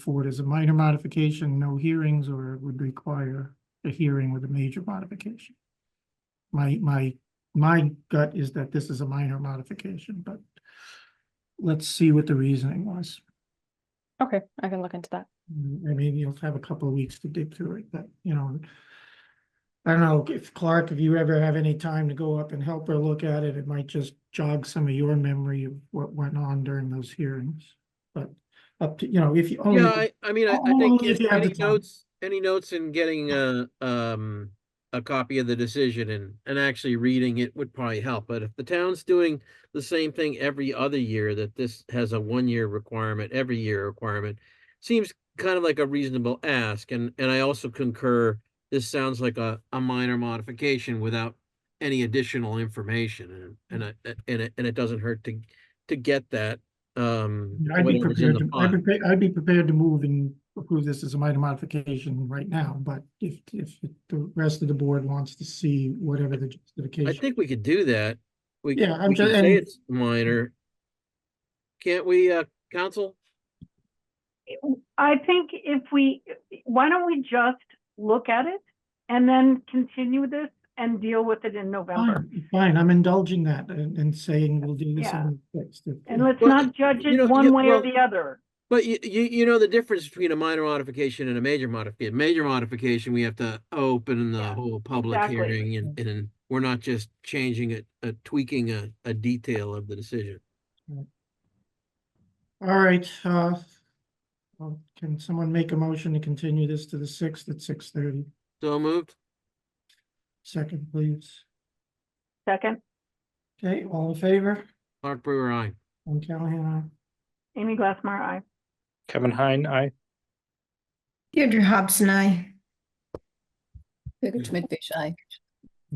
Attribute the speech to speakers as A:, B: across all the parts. A: forward as a minor modification, no hearings, or it would require a hearing with a major modification. My, my, my gut is that this is a minor modification, but let's see what the reasoning was.
B: Okay, I can look into that.
A: Mm, I mean, you'll have a couple of weeks to dig through it, but you know. I don't know if Clark, if you ever have any time to go up and help her look at it, it might just jog some of your memory of what went on during those hearings. But up to, you know, if you. only-
C: Yeah, I, I mean, I, I
A: Only
C: think
A: Oh, if
C: if
A: you have the
C: any
A: time.
C: notes, any notes in getting a, um, a copy of the decision and, and actually reading it would probably help. But if the town's doing the same thing every other year, that this has a one-year requirement, every year requirement, seems kind of like a reasonable ask. And, and I also concur, this sounds like a, a minor modification without any additional information. And, and I, and it, and it doesn't hurt to, to get that, um.
A: I'd be
C: whatever's
A: prepared,
C: in the
A: to-
C: file.
A: I'd be, I'd be prepared to move and approve this as a minor modification right now, but if, if the rest of the board wants to see whatever the
C: I
A: justification.
C: think we could do that. We,
A: Yeah, I'm
C: we
A: ju-
C: can say
A: and-
C: it's minor. Can't we, uh, counsel?
D: I think if we, why don't we just look at it and then continue this and deal with it in November?
A: Fine, Fine, I'm indulging that and, and saying we'll do this
D: Yeah.
A: on the sixth. if-
D: And
A: if-
D: let's
C: Well,
D: not judge
C: you know,
D: it one
C: yeah,
D: way or
C: well-
D: the other.
C: But you, you, you know the difference between a minor modification and a major modification. Major modification, we have to open the
D: Yeah,
C: whole public
D: exactly.
C: hearing and, and we're not just changing it, uh, tweaking a, a detail of the decision.
A: All right, uh, well, can someone make a motion to continue this to the sixth at six thirty?
C: So moved?
A: Second, please.
D: Second,
A: Okay, all in favor?
C: Clark Brewer, aye.
A: Tom Callahan, aye.
D: Amy Glassmeyer, aye.
E: Kevin Hine, aye.
F: Deirdre Hobson, aye.
G: Figure to Midfish Eye.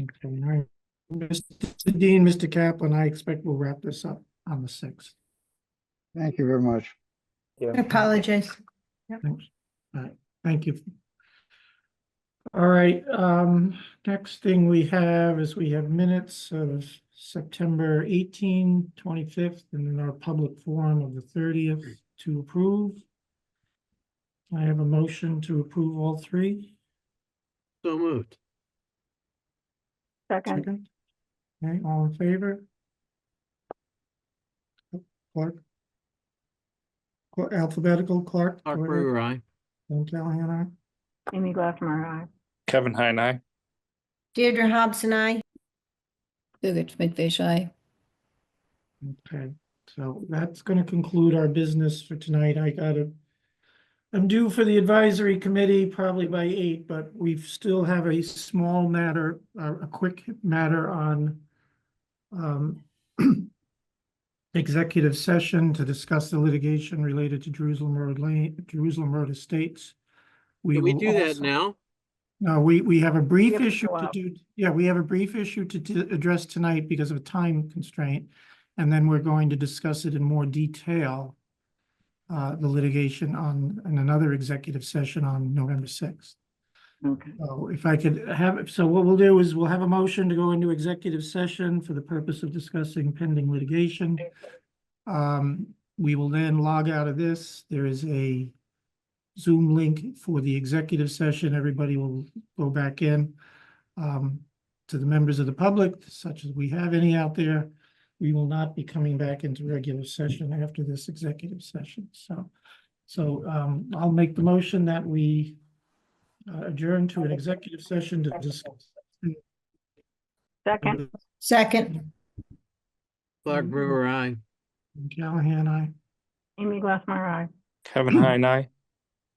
A: Okay, all right. Mr. Dean, Mr. Kaplan, I expect we'll wrap this up on the sixth.
H: Thank you very much.
F: I apologize.
A: Thanks. All right, thank you. All right, um, next thing we have is we have minutes of September 18, 25th, and then our public forum of the thirtieth to approve. I have a motion to approve all three.
C: So moved.
D: Second,
A: Second. Okay, all in favor? Clark? Cla- Alphabetical Clark?
C: Clark
A: Doyle,
C: Brewer, aye.
A: Tom Callahan, aye.
D: Amy Glassmeyer, aye.
E: Kevin Hine, aye.
F: Deirdre Hobson, aye.
G: Figure to Midfish Eye.
A: Okay, so that's gonna conclude our business for tonight. I gotta. I'm due for the advisory committee probably by eight, but we still have a small matter, uh, a quick matter on. Um. Executive session to discuss the litigation related to Jerusalem Road Lane, Jerusalem Road Estates.
C: Can we
A: will
C: do that
A: also-
C: now?
A: no, Uh, we, we have a brief
D: have to
A: issue
D: go
A: to
D: out.
A: do, yeah, we have a brief issue to, to address tonight because of a time constraint. And then we're going to discuss it in more detail. Uh, the litigation on, in another executive session on November sixth.
D: Okay.
A: So Oh, if I could have, so what we'll do is we'll have a motion to go into executive session for the purpose of discussing pending litigation. Um, we will then log out of this. There is a Zoom link for the executive session. Everybody will go back in. Um, to the members of the public, such as we have any out there, we will not be coming back into regular session after this executive session, so. So, um, I'll make the motion that we uh, adjourn to an executive session to discuss.
D: Second,
F: Second,
C: Clark
A: Mm-hmm.
C: Brewer, aye.
A: Callahan, I.
D: Amy Glassmeyer, aye.
E: Kevin Hine, aye.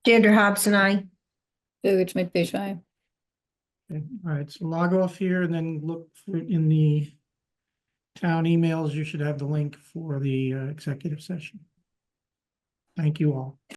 F: Deirdre Hobson, aye.
G: Figure to Midfish Eye.
A: Okay, all right, so log off here and then look for in the town emails, you should have the link for the uh, executive session. Thank you all.